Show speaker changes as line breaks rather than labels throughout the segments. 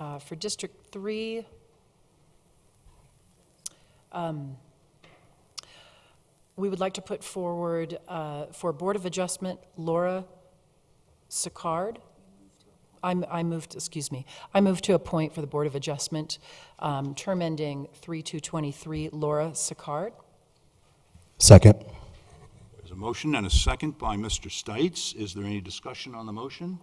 uh, for District 3, um, we would like to put forward uh, for Board of Adjustment Laura Sicard. I'm- I moved, excuse me, I moved to appoint for the Board of Adjustment, um, term ending 3/2/23, Laura Sicard.
Second.
There's a motion and a second by Mr. Stites. Is there any discussion on the motion?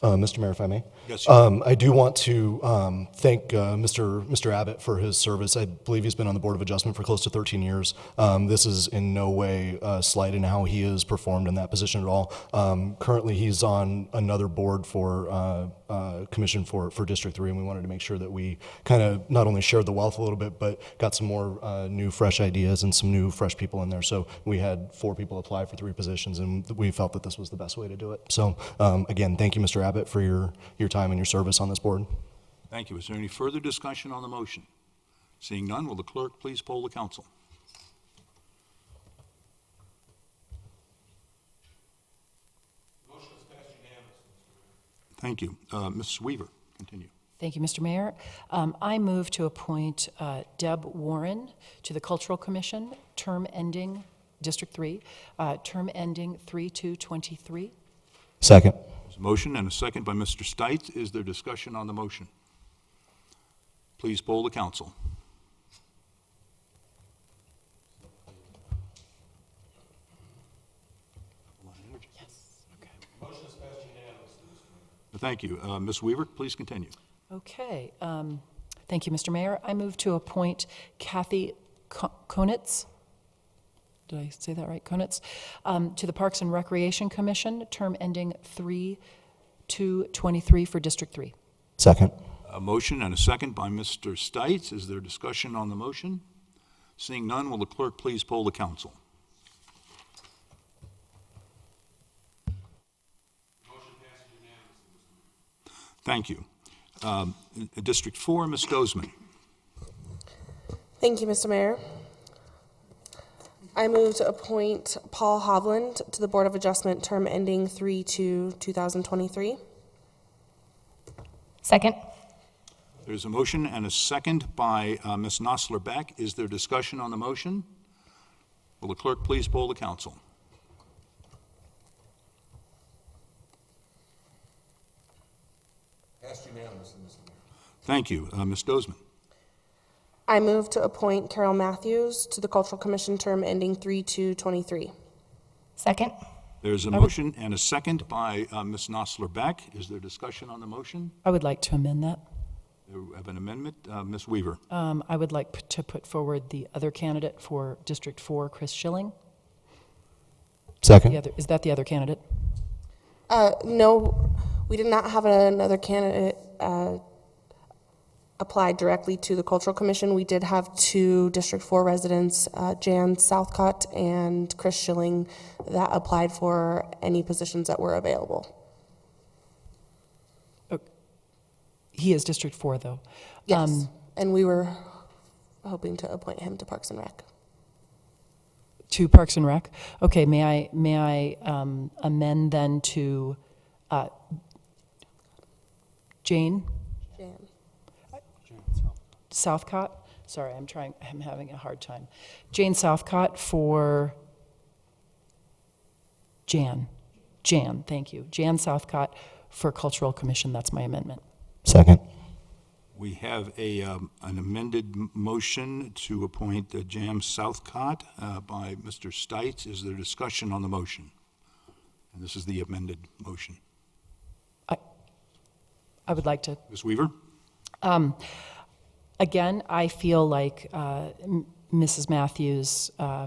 Uh, Mr. Mayor, if I may?
Yes, sir.
Um, I do want to um, thank uh, Mr. Mr. Abbott for his service. I believe he's been on the Board of Adjustment for close to 13 years. Um, This is in no way uh, slight in how he has performed in that position at all. Um, Currently, he's on another board for, uh, uh, commission for for District 3, and we wanted to make sure that we kind of not only shared the wealth a little bit, but got some more uh, new, fresh ideas and some new, fresh people in there. So we had four people apply for three positions, and we felt that this was the best way to do it. So um, again, thank you, Mr. Abbott, for your, your time and your service on this board.
Thank you. Is there any further discussion on the motion? Seeing none, will the clerk please poll the council? Thank you. Uh, Ms. Weaver, continue.
Thank you, Mr. Mayor. Um, I move to appoint uh, Deb Warren to the Cultural Commission, term ending, District 3, uh, term ending 3/2/23.
Second.
There's a motion and a second by Mr. Stites. Is there discussion on the motion? Please poll the council. Thank you. Uh, Ms. Weaver, please continue.
Okay, um, thank you, Mr. Mayor. I move to appoint Kathy Ko- Konitz, did I say that right, Konitz, um, to the Parks and Recreation Commission, term ending 3/2/23 for District 3.
Second.
A motion and a second by Mr. Stites. Is there discussion on the motion? Seeing none, will the clerk please poll the council? Thank you. Um, District 4, Ms. Dozeman.
Thank you, Mr. Mayor. I move to appoint Paul Hovland to the Board of Adjustment, term ending 3/2/2023.
Second.
There's a motion and a second by uh, Ms. Nosler Beck. Is there discussion on the motion? Will the clerk please poll the council? Thank you. Uh, Ms. Dozeman.
I move to appoint Carol Matthews to the Cultural Commission, term ending 3/2/23.
Second.
There's a motion and a second by uh, Ms. Nosler Beck. Is there discussion on the motion?
I would like to amend that.
We have an amendment. Uh, Ms. Weaver.
Um, I would like p- to put forward the other candidate for District 4, Chris Schilling. The
Second.
other, is that the other candidate?
Uh, no, we did not have another candidate, uh, apply directly to the Cultural Commission. We did have two District Four residents, uh, Jan Southcott and Chris Schilling, that applied for any positions that were available.
He is District 4, though.
Yes,
Um,
and we were hoping to appoint him to Parks and Rec.
To Parks and Rec? Okay, may I, may I um, amend then to uh, Jane
Jan.
Southcott? Sorry, I'm trying, I'm having a hard time. Jane Southcott for Jan. Jan, thank you. Jan Southcott for Cultural Commission, that's my amendment.
Second.
We have a, um, an amended m- motion to appoint uh, Jam Southcott uh, by Mr. Stites. Is there discussion on the motion? And this is the amended motion.
I would like to
Ms. Weaver?
Um, again, I feel like uh, M- Mrs. Matthews uh,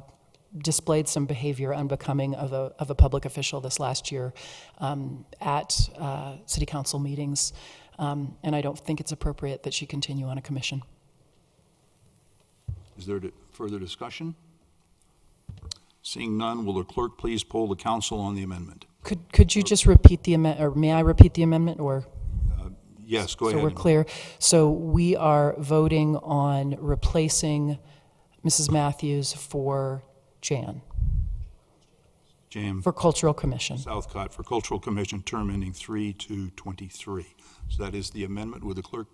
displayed some behavior unbecoming of a, of a public official this last year um, at uh, city council meetings, um, and I don't think it's appropriate that she continue on a commission.
Is there di- further discussion? Seeing none, will the clerk please poll the council on the amendment?
Could, could you just repeat the amendment, or may I repeat the amendment, or?
Yes, go ahead.
So we're clear. So we are voting on replacing Mrs. Matthews for Jan,
Jam
for Cultural Commission.
Southcott for Cultural Commission, term ending 3/2/23. So that is the amendment. Would the clerk